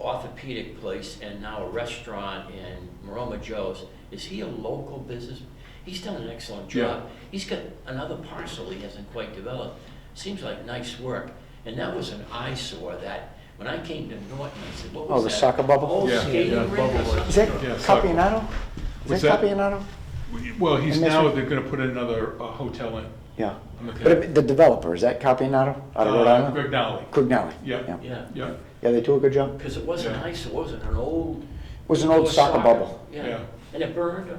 Pedic place and now a restaurant in Maroma Joe's, is he a local business? He's done an excellent job. He's got another parcel he hasn't quite developed. Seems like nice work. And that was an eyesore that, when I came to Norton, I said, what Oh, was the that? soccer bubble? Old Yeah, skating yeah, rink or bubble was- Is something? that Yeah, soccer. Capianotto? Is What's that that? Capianotto? Well, he's And that's now, what- they're gonna put another uh, hotel in. Yeah. I'm okay. But it- the developer, is that Capianotto out of Rhode Uh, Island? Greg Dowley. Crignelli? Yeah. Yeah, Yeah, Yeah, Yeah, they do a good job. because it wasn't Yeah. eyesore, it wasn't an old. It was an old soccer bubble. Yeah, Yeah. and it burned. or it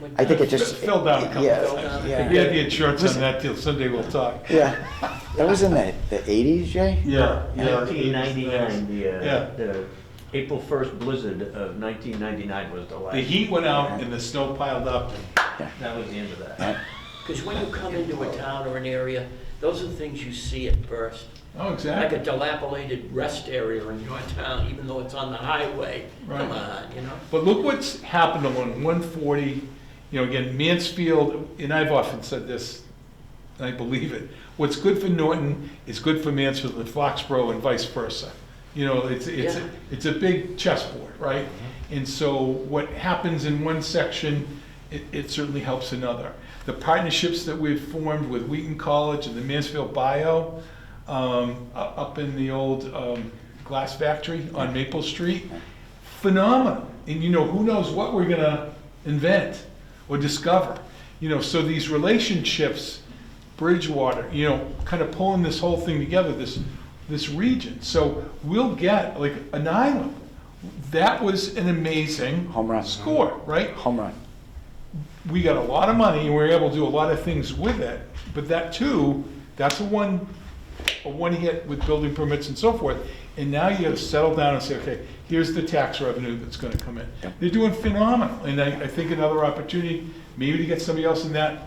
went I think down. it just. It fell down a couple yeah, of times. if Yeah, he yeah. had the insurance on that till someday we'll talk. That was in the, the eighties, Jay? Yeah. yeah, Nineteen ninety-nine, the, Yeah. uh, the April first blizzard of nineteen ninety-nine was the last. The heat went out and the snow piled up. That was the end of that. Because when you come into a town or an area, those are the things you see at first. Oh, Like a exactly. dilapidated rest area in your town, even though it's on the highway. Come Right. on, you know? But look what's happened on one forty, you know, again, Mansfield, and I've often said this, and I believe it, what's good for Norton is good for Mansfield and Foxborough and vice versa. You know, it's, it's, Yeah. it's a big chessboard, right? And so what happens in one section, it, it certainly helps another. The partnerships that we've formed with Wheaton College and the Mansfield Bio, um, u- up in the old, um, glass factory on Maple Street, phenomenal. And you know, who knows what we're gonna invent or discover. You know, so these relationships, Bridgewater, you know, kind of pulling this whole thing together, this, this region. So we'll get like an island. That was an amazing Home run. score, right? Home run. we got a lot of money, and we were able to do a lot of things with it, but that too, that's a one, a one hit with building permits and so forth. And now you gotta settle down and say, okay, here's the tax revenue that's gonna come in. Yep. They're doing phenomenal, and I, I think another opportunity, maybe to get somebody else in that,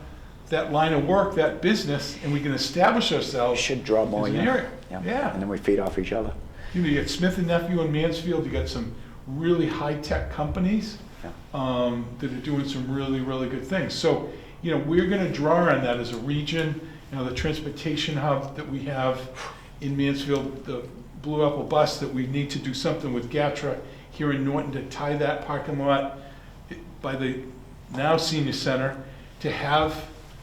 that line of work, that business, and we can establish We ourselves. should draw more, As yeah. an area, yeah. And then we feed off each other. You know, you got Smith and Nephew in Mansfield, you got some really high-tech companies Yeah. um, that are doing some really, really good things. So, you know, we're gonna draw on that as a region, you know, the transportation hub that we have in Mansfield, the Blue Apple Bus, that we need to do something with GATRA here in Norton to tie that parking lot by the now senior center to have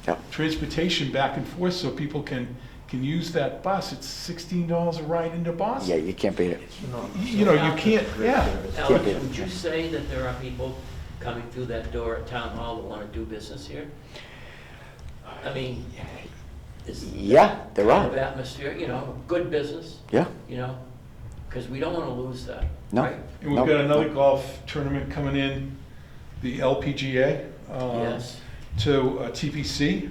Yep. transportation back and forth so people can, can use that bus. It's sixteen dollars a ride into Boston. Yeah, you can't beat it. You know, you can't, yeah, Alex, yeah. would you say that there are people coming through that door at town hall that want to do business here? I mean, is Yeah, there kind of are. atmosphere, you know, good business, Yeah. you know? Because we don't want to lose that, No. right? And we've got another golf tournament coming in, the LPGA. um, Yes. To uh, TPC.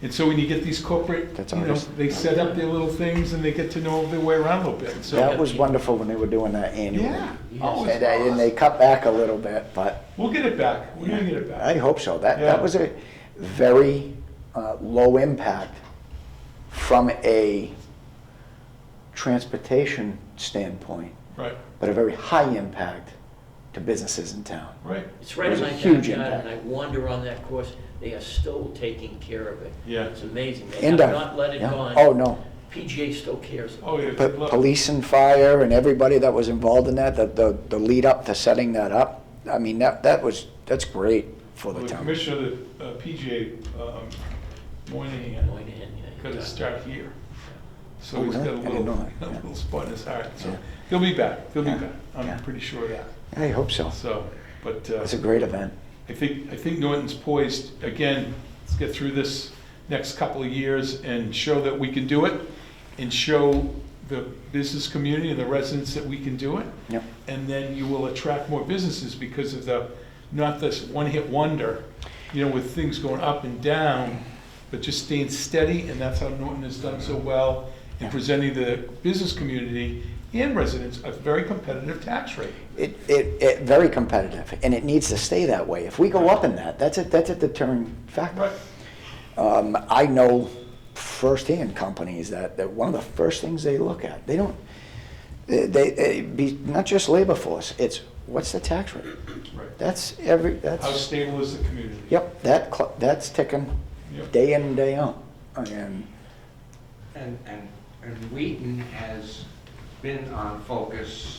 And so when you get these corporate, That's you know, ours. they set up their little things and they get to know their way around a little bit, so. That was wonderful when they were doing that annually. Yeah. Yes. oh, it's And they, and they cut back a little bit, but awesome. We'll get it back. We're gonna get it I back. hope so. That, Yeah. that was a very uh, low impact from a transportation standpoint, Right, but a very high impact to businesses in town. right. It's right There's in a my huge backyard, impact. and I wander on that course, they are still taking care of it. Yeah. It's amazing, they have And, uh, not let it yeah. go on. Oh, no. PGA still cares. Oh, yeah. But police and fire and everybody that was involved in that, the, the, the lead up to setting that up, I mean, that, that was, that's great for Well, the The town. commissioner of the uh, PGA, um, Moynihan, Going in, yeah. got to start here. So Oh, he's got really? a I didn't little, know a that. Yeah. little spot in his heart, so Yeah. he'll be back, he'll be Yeah. back. Yeah. I'm pretty sure of that. I hope so. So, but uh, It's a great event. I think, I think Norton's poised, again, let's get through this next couple of years and show that we can do it, and show the business community and the residents that we can do it. Yep. And then you will attract more businesses because of the, not this one-hit wonder, you know, with things going up and down, but just staying steady, and that's how Norton has done so well in Yeah. presenting the business community and residents a very competitive tax rate. It, it, it, very competitive, and it needs to stay that way. If we go up in that, that's a, that's a deterrent factor. Right. Um, I know firsthand companies that, that one of the first things they look at, they don't, they, they, be, not just labor force, it's what's the tax rate? Right. That's every, How that's, stable is the community? yep, that, cl- that's ticking Yep. day in and day out. And And, and, and Wheaton has been on focus